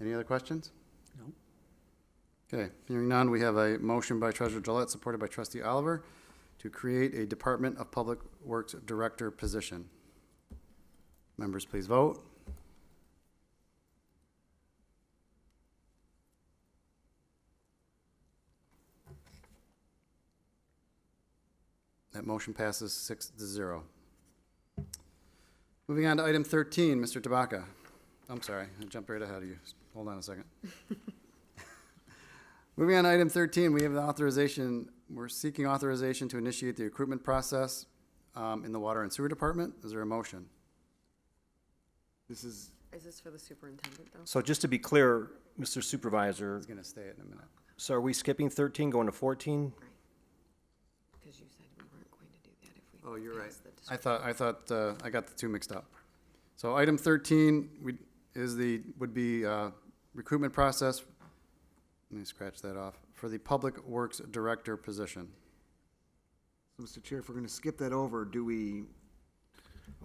Any other questions? No. Okay, hearing none, we have a motion by Treasurer Gillette, supported by Trustee Oliver, to create a Department of Public Works Director position. Members, please vote. That motion passes six to zero. Moving on to item thirteen, Mr. Tabaka. I'm sorry, I jumped right ahead of you. Hold on a second. Moving on to item 13, we have the authorization, we're seeking authorization to initiate the recruitment process um, in the Water and Sewer Department. Is there a motion? This is, Is this for the superintendent, though? So just to be clear, Mr. Supervisor, He's going to stay it in a minute. so are we skipping 13, going to 14? Because you said we weren't going to do that if we. Oh, you're right. passed the dis- I thought, I thought, uh, I got the two mixed up. So item 13 we- is the, would be uh, recruitment process, let me scratch that off, for the Public Works Director position. Mr. Chair, if we're going to skip that over, do we,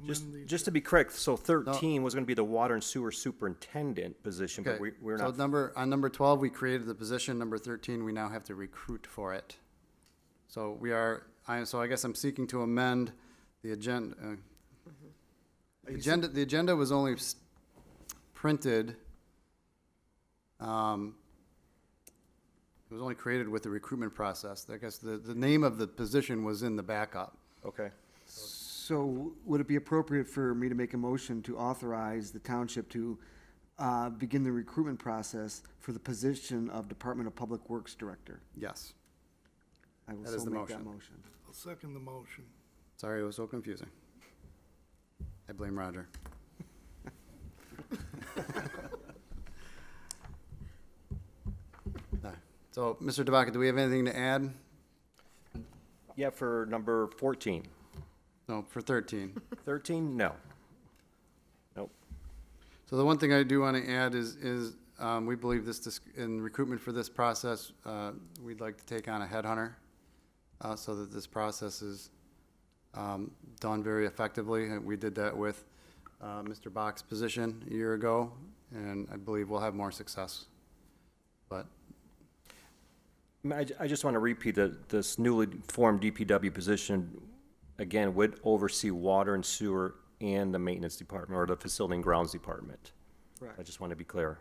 Just, just to be correct, so 13 was going to be the water and sewer superintendent position, but Okay, we, we're so not, number, on number twelve, we created the position, number thirteen, we now have to recruit for it. So we are, I, so I guess I'm seeking to amend the agenda. uh, Mm-hmm. Agenda, the agenda was only s- printed, um, it was only created with the recruitment process. I guess the, the name of the position was in the backup. okay. so would it be appropriate for me to make a motion to authorize the township to uh, begin the recruitment process for the position of Department of Public Works Director? Yes. I will That is so the make that motion. motion. I'll second the motion. Sorry, it was so confusing. I blame Roger. No. So, Mr. Tabaka, do we have anything to add? Yeah, for number 14. No, for 13. 13, no. Nope. So the one thing I do want to add is, is um, we believe this, dis- in recruitment for this process, uh, we'd like to take on a headhunter uh, so that this process is um, done very effectively. And we did that with uh, Mr. Bach's position a year ago, and I believe we'll have more success. But I mean, I, ju- I just want to repeat that this newly formed DPW position, again, would oversee water and sewer and the maintenance department, or the facility and grounds department. I just want to be clear.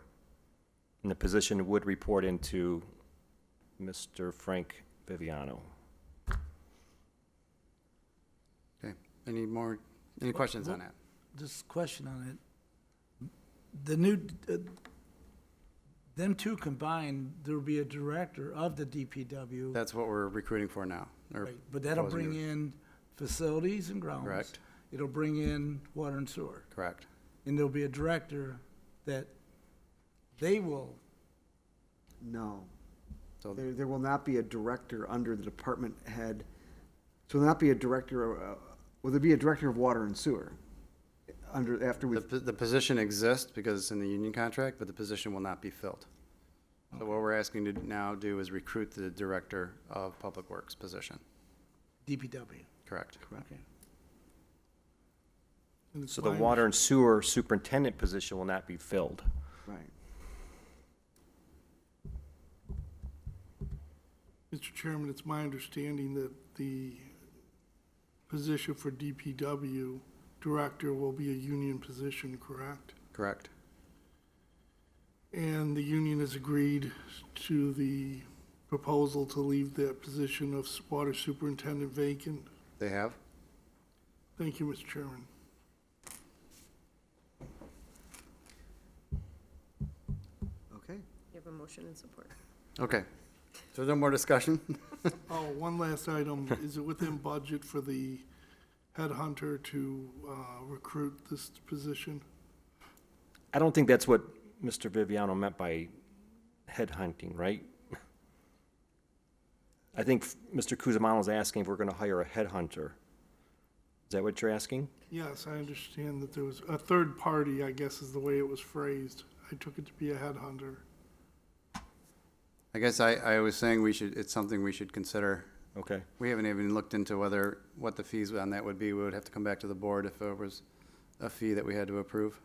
And the position would report into Mr. Frank Viviano. Okay, any more, any questions on that? Just question on it. The new, uh, them two combined, there will be a director of the DPW. That's what we're recruiting for now. or right, But that'll proposing bring to- in facilities and grounds. Correct. It'll bring in water and sewer. Correct, And there'll be a director that they will, No. so, There, there will not be a director under the department head. So there'll not be a director, uh, will there be a director of water and sewer? Under, after the, we've po- the position exists because it's in the union contract, but the position will not be filled. So what we're asking to now do is recruit the Director of Public Works position, DPW. correct? Okay. So the water and sewer superintendent position will not be filled. Right. Mr. Chairman, it's my understanding that the position for DPW director will be a union position, correct? Correct, And the union has agreed to the proposal to leave that position of water superintendent vacant. they have? Thank you, Mr. Chairman. Okay. You have a motion and support. Okay, so no more discussion? Oh, one last item. Is it within budget for the headhunter to uh, recruit this position? I don't think that's what Mr. Viviano meant by headhunting, right? I think Mr. Cusimano is asking if we're going to hire a headhunter. Is that what you're asking? Yes, I understand that there was a third party, I guess is the way it was phrased. I took it to be a headhunter. I guess I, I was saying we should, it's something we should consider. Okay. We haven't even looked into whether, what the fees on that would be. We would have to come back to the board if there was a fee that we had to approve.